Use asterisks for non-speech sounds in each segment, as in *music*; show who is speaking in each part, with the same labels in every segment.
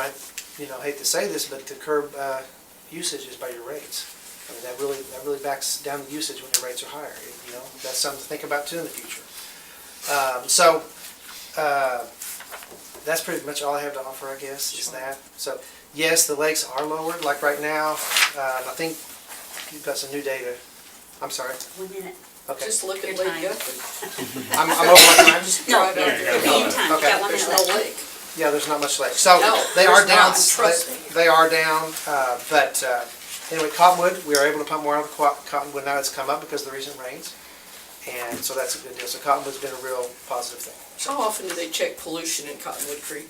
Speaker 1: I, you know, hate to say this, but to curb uh, usage is by your rates. I mean, that really, that really backs down the usage when your rates are higher, you know? That's something to think about too in the future. Um, So, uh, that's pretty much all I have to offer, I guess, is that. So, yes, the lakes are lowered, like right now, uh, I think you've got some new data. I'm sorry,
Speaker 2: One minute.
Speaker 1: okay.
Speaker 3: Just look
Speaker 2: Your
Speaker 3: at Lake
Speaker 2: time.
Speaker 3: Guthrie.
Speaker 1: I'm, I'm over my time.
Speaker 2: No,
Speaker 3: Right
Speaker 2: no,
Speaker 3: over
Speaker 2: your
Speaker 3: there.
Speaker 2: meeting time, you
Speaker 1: Okay.
Speaker 2: got one minute
Speaker 3: There's no
Speaker 2: left.
Speaker 3: lake.
Speaker 1: Yeah, there's not much left. So
Speaker 3: No,
Speaker 1: they are
Speaker 3: there's
Speaker 1: down.
Speaker 3: not, trust
Speaker 1: they-
Speaker 3: me.
Speaker 1: They are down, uh, but uh, anyway, Cottonwood, we are able to pump more out of the co- Cottonwood now it's come up because of the recent rains. And so that's a good deal. So Cottonwood's been a real positive thing.
Speaker 3: How often do they check pollution in Cottonwood Creek?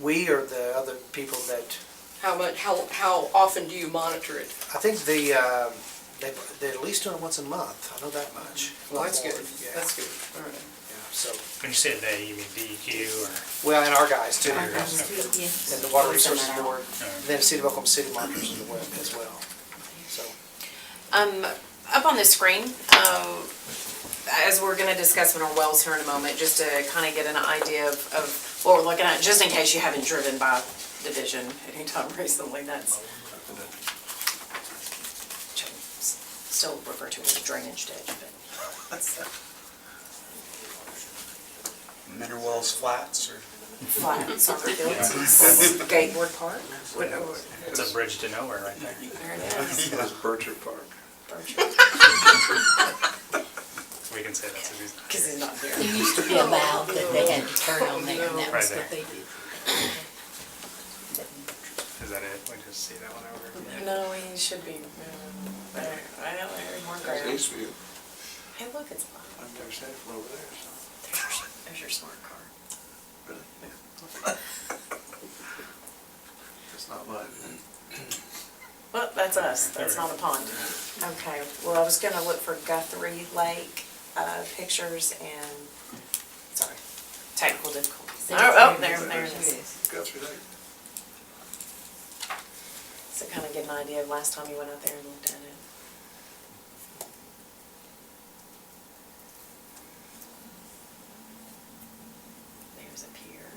Speaker 1: We are the other people that,
Speaker 3: How much, how, how often do you monitor it?
Speaker 1: I think the, um, they, they're at least doing it once a month. I know that much.
Speaker 3: Well, that's good,
Speaker 1: Yeah,
Speaker 3: that's good, all right.
Speaker 1: yeah, so,
Speaker 4: When you say they, you mean DEQ or?
Speaker 1: well, and our guys too,
Speaker 2: Our
Speaker 1: and
Speaker 2: guys do, yes.
Speaker 1: the Water
Speaker 2: We'll send
Speaker 1: Resources
Speaker 2: that out.
Speaker 1: Board, then City of Oklahoma City Markers as well- as well, so.
Speaker 5: Um, up on the screen, um, as we're gonna discuss mineral wells here in a moment, just to kind of get an idea of, of what we're looking at, just in case you haven't driven by Division anytime *laughs* recently, that's. which I s- Still refer to as a drainage ditch, but
Speaker 6: Mineral Wells Flats or?
Speaker 5: flat soccer fields, skateboard park, whatever,
Speaker 4: It's a bridge to nowhere right there.
Speaker 5: there it is.
Speaker 6: It was Bircher Park.
Speaker 4: We can say that's a reason.
Speaker 5: Cause he's not there.
Speaker 2: There used to be a valve that they had to turn on there, and that was
Speaker 4: Right
Speaker 2: what they did.
Speaker 4: Is that it? We just see that one over.
Speaker 5: No, he should be, um, there, I know, there's more
Speaker 6: It
Speaker 5: ground.
Speaker 6: used to be,
Speaker 5: Hey, look, it's mine.
Speaker 6: I've never seen it from over there, so,
Speaker 5: There's your- There's your smart car.
Speaker 6: really. *laughs* It's not mine.
Speaker 5: Well, that's us, that's not a pond. Okay, well, I was gonna look for Guthrie Lake, uh, pictures and, sorry, technical difficulties. Oh, oh, there, there it is.
Speaker 6: Guthrie Lake.
Speaker 5: So kinda get an idea of last time you went out there and looked at it. There's a pier.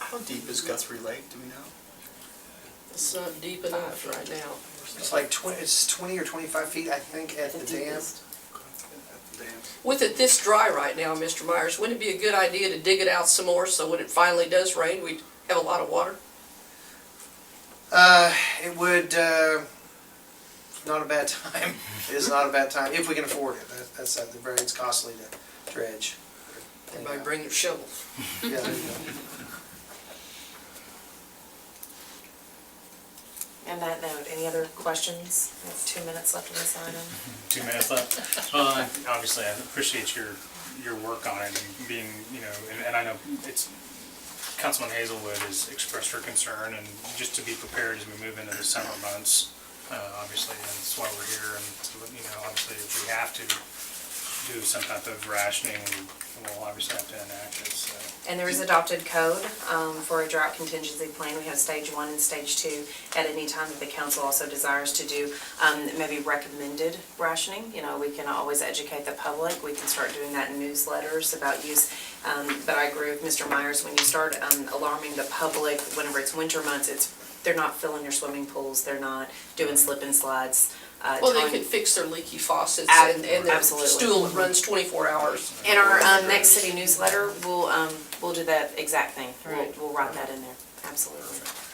Speaker 6: How deep is Guthrie Lake, do we know?
Speaker 3: It's not deep enough right now.
Speaker 1: It's like twenty, it's twenty or twenty-five feet, I think, at the dam.
Speaker 3: With it this dry right now, Mr. Myers, wouldn't it be a good idea to dig it out some more so when it finally does rain, we'd have a lot of water?
Speaker 1: Uh, it would, uh, not a bad *laughs* time. It is not a bad time, if we can afford it. That- That's, uh, the very, it's costly to dredge.
Speaker 3: Everybody bring their shovels.
Speaker 1: Yeah, there you go.
Speaker 5: And that note, any other questions? We have two minutes left in this item.
Speaker 4: Two minutes left. Well, I- obviously, I appreciate your, your work on it and being, you know, and, and I know it's, Councilman Hazelwood has expressed her concern and just to be prepared as we move into the summer months, uh, obviously, and that's why we're here and, you know, obviously, if we have to do some type of rationing, we- we'll obviously have to enact it, so.
Speaker 5: And there is adopted code um, for a drought contingency plan. We have stage one and stage two at any time that the council also desires to do um, maybe recommended rationing. You know, we can always educate the public. We can start doing that in newsletters about use. Um, But I agree with Mr. Myers, when you start um, alarming the public, whenever it's winter months, it's, they're not filling your swimming pools, they're not doing slip and slides. uh,
Speaker 3: Well, they
Speaker 5: telling-
Speaker 3: could fix their leaky faucets and, and their
Speaker 5: Absolutely.
Speaker 3: stool that runs twenty-four hours.
Speaker 5: In our um, next city newsletter, we'll, um, we'll do that exact thing. We'll,
Speaker 3: Right.
Speaker 5: we'll write that in there, absolutely.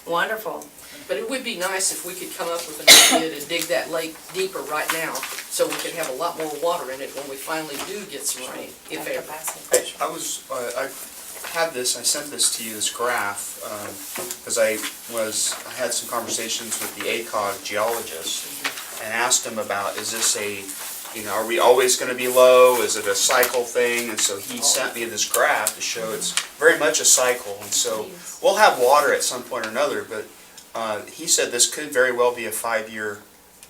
Speaker 5: Wonderful.
Speaker 3: But it would be nice if we could come up with an idea to dig that lake deeper right now, so we could have a lot more water in it when we finally do get some rain, if
Speaker 5: Dr.
Speaker 3: ever.
Speaker 5: Bassett.
Speaker 6: Hey, I was, uh, I had this, I sent this to you, this graph, because I was, I had some conversations with the ACOG geologist and asked him about, is this a, you know, are we always going to be low? Is it a cycle thing? And so he sent me this graph to show it's very much a cycle. And so we'll have water at some point or another, but uh, he said this could very well be a five-year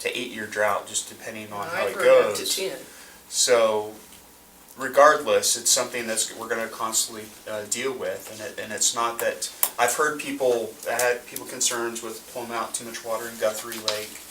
Speaker 6: to eight-year drought, just depending on how
Speaker 3: I
Speaker 6: it
Speaker 3: heard up
Speaker 6: goes.
Speaker 3: to ten.
Speaker 6: So regardless, it's something that's, we're gonna constantly, uh, deal with, and it, and it's not that, I've heard people, I had people concerns with pulling out too much water in Guthrie Lake,